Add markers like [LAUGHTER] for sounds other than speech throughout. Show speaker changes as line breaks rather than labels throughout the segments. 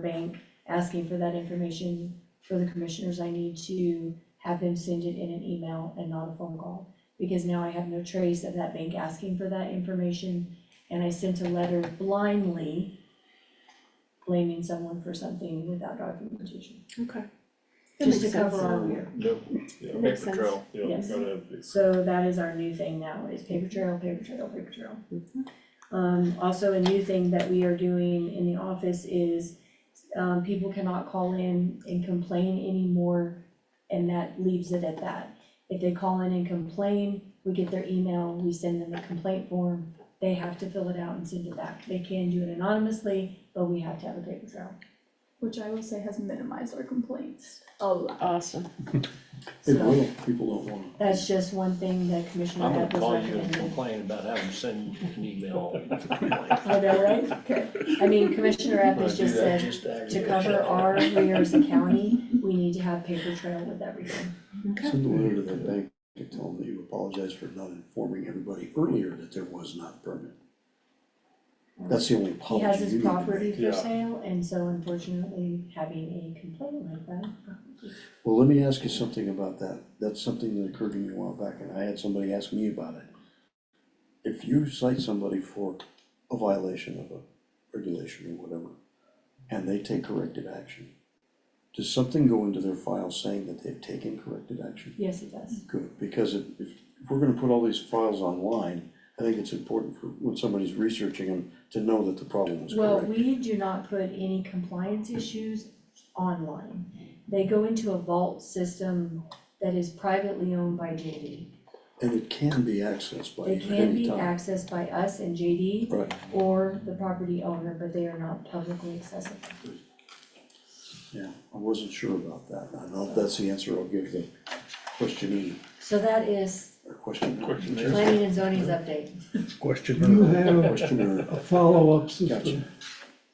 bank, asking for that information for the commissioners, I need to have them send it in an email and not a phone call. Because now I have no trace of that bank asking for that information, and I sent a letter blindly blaming someone for something without documentation,
Okay.
just to cover our rear.
Yep, yeah,
That makes
paper trail, yeah, you
Yes.
gotta,
So that is our new thing now, is paper trail, paper trail, paper trail.
Mm-hmm.
Um, also, a new thing that we are doing in the office is, um, people cannot call in and complain anymore, and that leaves it at that. If they call in and complain, we get their email, we send them a complaint form, they have to fill it out and send it back. They can do it anonymously, but we have to have a paper trail.
which I will say has minimized our complaints a lot.
Awesome.
It
So-
will, people don't wanna,
That's just one thing that Commissioner
I'm gonna
Epp was
call you and
recommending.
complain about having sent an email.
[LAUGHS] I know, right? [LAUGHS] I mean, Commissioner Epp has just said, To cover our rear as a county, we need to have paper trail with everything.
Okay.
send a letter to that bank and tell them that you apologize for not informing everybody earlier that there was not a permit. That's the only
He
apology
has
Oh, you
his
need to
property
make.
for
Yeah.
sale, and so unfortunately, having a complaint like that.
Well, let me ask you something about that, that's something that occurred to me a while back, and I had somebody ask me about it. If you cite somebody for a violation of a regulation or whatever, and they take corrective action, does something go into their file saying that they've taken corrective action?
Yes, it does.
Good, because if, if we're gonna put all these files online, I think it's important for, when somebody's researching them, to know that the problem was
Well,
correct.
we do not put any compliance issues online. They go into a vault system that is privately owned by JD.
And it can be accessed by
They
you at
can
any
be
time.
accessed by us and JD
Right,
or the property owner, but they are not publicly accessible.
yeah, I wasn't sure about that, I don't know if that's the answer I'll give the questionee,
So that is
or questioner.
Questionnaire.
planning and zoning's update.
You
Questioner.
have
Questioner,
a follow-up
Gotcha.
system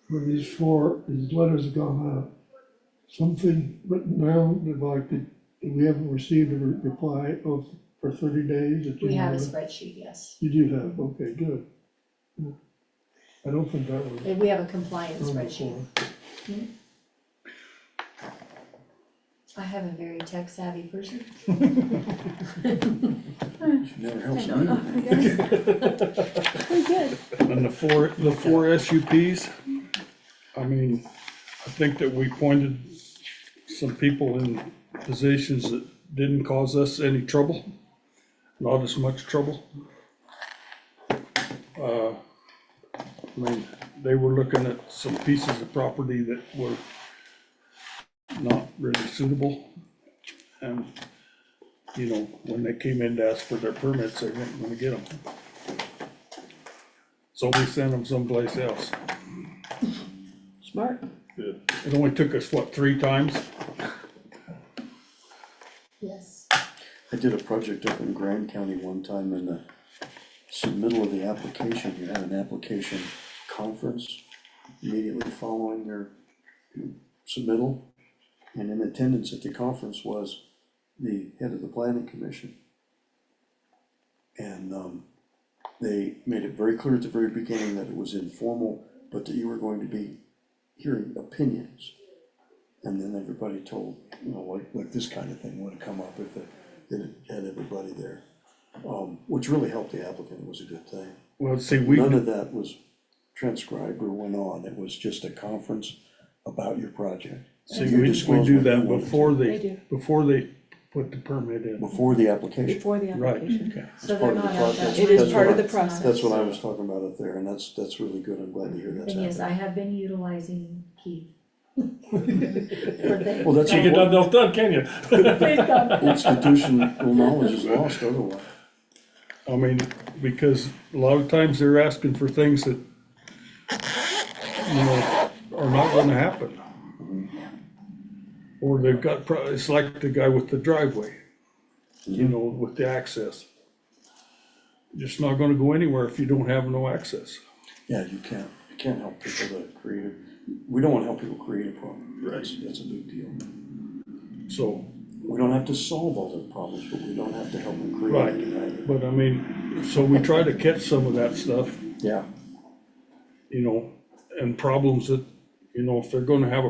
for these four, these letters have gone out. Something written down, that like, that we haven't received a re- reply of, for thirty days that you
We have a
have.
Mm-hmm.
spreadsheet, yes.
You do have, okay, good. Yeah. I don't think that was
Yeah, We have a compliance
Mm.
done
spreadsheet.
before.
I have a very tech savvy person.
never
I
helps
know,
me.
I guess.
Very good.
And the four, the four SUPs, I mean, I think that we pointed some people in positions that didn't cause us any trouble, not as much trouble. Uh, I mean, they were looking at some pieces of property that were not really suitable. And, you know, when they came in to ask for their permits, they weren't gonna get them. So we sent them someplace else.
Smart.
Good.
It only took us, what, three times?
Yes.
I did a project up in Grand County one time in the submittal of the application, you had an application conference immediately following their submittal. And in attendance at the conference was the head of the planning commission. And, um, they made it very clear at the very beginning that it was informal, but that you were going to be hearing opinions. And then everybody told, you know, like, like this kind of thing would have come up if it, if it had everybody there. Um, which really helped the applicant, it was a good thing.
Well, see, we,
None of that was transcribed or went on, it was just a conference about your project.
see,
You
we, we
disclosed
do
what you
that
wanted to,
before
They
they,
do,
before they put the permit in.
Before the application,
before the
Right.
application.
So
It's
they're
part of the
not out that.
process.
It is
That's
part of
what
the
I-
process.
that's what I was talking about up there, and that's, that's really good, I'm glad to hear that's
And yes, I
happening.
have been utilizing
[LAUGHS]
Keith. For things.
Well, that's
You get
important,
nothing done, can you?
[LAUGHS] institutional knowledge is lost otherwise.
I mean, because a lot of times they're asking for things that, you know, are not gonna happen. Or they've got, pro- it's like the guy with the driveway, you know, with the access. Just not gonna go anywhere if you don't have no access.
Yeah, you can't, you can't help people that create, a. we don't wanna help people create a problem, that's, that's a big deal.
So,
We don't have to solve all their problems, but we don't have to help them create
Right.
any either.
But I mean, so we try to catch some of that stuff,
Yeah,
you know, and problems that you know, if they're gonna have a